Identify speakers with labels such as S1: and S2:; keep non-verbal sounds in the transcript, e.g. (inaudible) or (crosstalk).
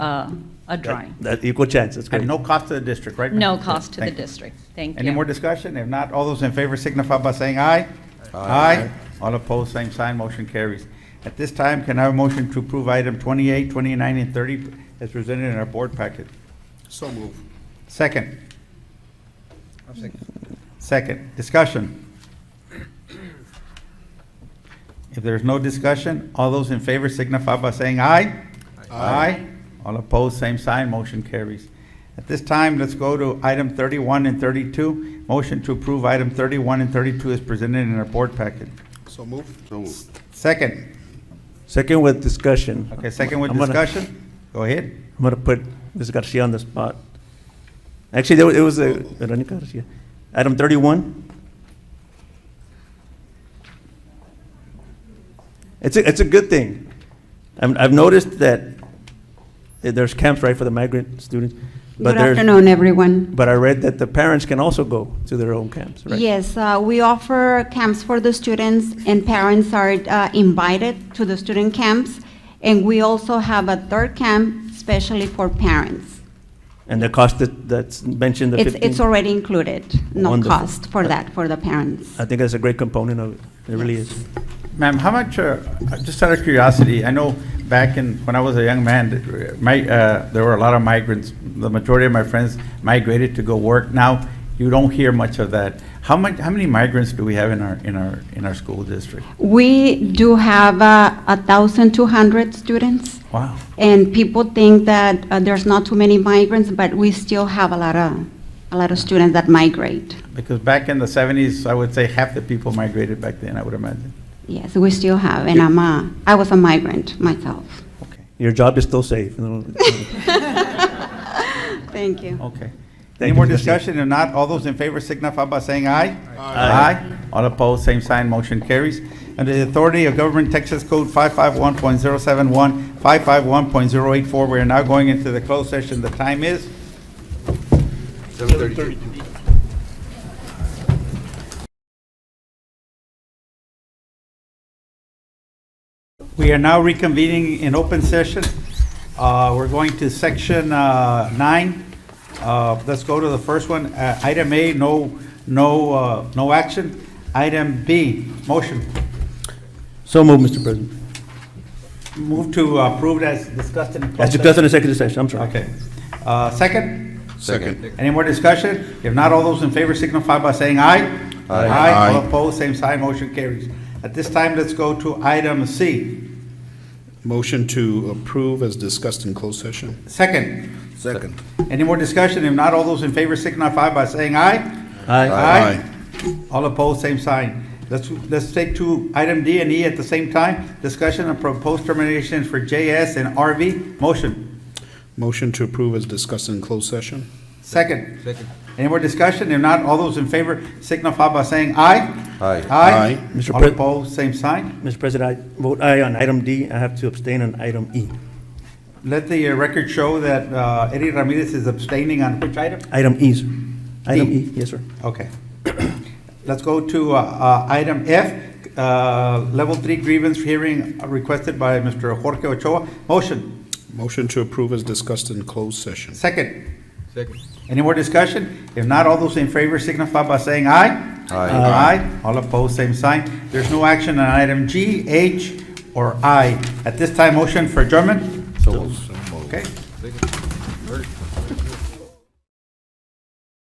S1: uh, a drawing.
S2: That equal chance, that's
S3: At
S2: great.
S3: no cost to the district, right?
S1: No
S3: ma'am?
S1: cost to the
S3: Thank you.
S1: district. Thank you.
S3: Any more discussion? If not, all those in favor signify by saying aye. Aye. All opposed, same sign, motion carries. At this time, can I have a motion to approve item 28, 29, and 30 as presented in our board packet?
S4: So move.
S3: Second,
S4: I'll second.
S3: second, discussion. If there's no discussion, all those in favor signify by saying aye. Aye. All opposed, same sign, motion carries. At this time, let's go to item 31 and 32. Motion to approve item 31 and 32 is presented in our board packet.
S4: So move. So move.
S3: Second,
S2: Second with discussion.
S3: okay, second with
S2: I'm gonna-
S3: discussion? Go ahead.
S2: I'm gonna put Ms. Garcia on the spot. Actually, there wa- it was a, Veronica Garcia. Item thirty-one. It's a, it's a good thing. I've, I've noticed that there's camps, right, for the migrant students. but
S5: Good
S2: there's-
S5: afternoon, everyone.
S2: But I read that the parents can also go to their own camps, right?
S5: Yes, uh, we offer camps for the students, and parents are uh, invited to the student camps. And we also have a third camp especially for parents.
S2: And the cost that, that's mentioned, the
S5: It's,
S2: fifteen.
S5: it's already included, no
S2: Wonderful. Uh,
S5: cost for that, for the parents.
S2: I think that's a great component of it. It really
S5: Yes.
S2: is.
S3: Ma'am, how much, uh, just out of curiosity, I know back in, when I was a young man, that, uh, my, uh, there were a lot of migrants. The majority of my friends migrated to go work. Now, you don't hear much of that. How much, how many migrants do we have in our, in our, in our school district?
S5: We do have uh, 1,200 students,
S3: Wow.
S5: and people think that uh, there's not too many migrants, but we still have a lot of, a lot of students that migrate.
S3: Because back in the seventies, I would say half the people migrated back then, I would imagine.
S5: Yes, we still have, and I'm a, I was a migrant myself.
S3: Okay,
S2: Your job is still safe. you know.
S5: Thank you.
S3: okay. Any
S2: Thank
S3: more
S2: you, Mr. Garcia.
S3: discussion? If not, all those in favor signify by saying aye.
S2: Aye.
S3: All opposed, same sign, motion carries. Under the authority of government, Texas Code 551.071, 551.084, we are now going into the closed session. The time is?
S4: Seven thirty-two.
S3: We are now reconvening in open session. Uh, We're going to section uh, nine. Uh, Let's go to the first one. Uh, Item A, no, no, uh, no action. Item B, motion.
S2: So moved, Mr. President.
S3: Move to approve as discussed in. closed
S2: As discussed in executive session, I'm sorry.
S3: Okay. Uh, Second?
S4: Second.
S3: Any more discussion? If not, all those in favor signify by saying aye.
S4: Aye.
S3: All opposed, same sign, motion carries. At this time, let's go to item C.
S4: Motion to approve as discussed in closed session.
S3: Second,
S4: Second.
S3: any more discussion? If not, all those in favor signify by saying aye.
S2: Aye.
S3: All opposed, same sign. Let's, let's take to item D and E at the same time. Discussion of proposed terminations for JS and RV. Motion.
S4: Motion to approve as discussed in closed session.
S3: Second. Second. Any more discussion? If not, all those in favor signify by saying aye.
S4: Aye.
S3: Aye.
S4: Aye.
S2: Mr.
S3: All
S2: Pres-
S3: opposed, same sign.
S2: Mr. President, I vote aye on item D. I have to abstain on item E.
S3: Let the uh, record show that uh, Eddie Ramirez is abstaining on which item?
S2: Item E, sir. Item
S3: D.
S2: E, yes, sir.
S3: Okay. (clears throat) Let's go to uh, uh, item F, uh, level three grievance hearing requested by Mr. Jorge Ochoa. Motion,
S4: Motion to approve as discussed in closed session.
S3: second.
S6: Second.
S3: Any more discussion? If not, all those in favor signify by saying aye.
S2: Aye.
S3: Aye. All opposed, same sign. There's no action on item G, H, or I. At this time, motion for adjournment?
S4: So moved.
S3: Okay.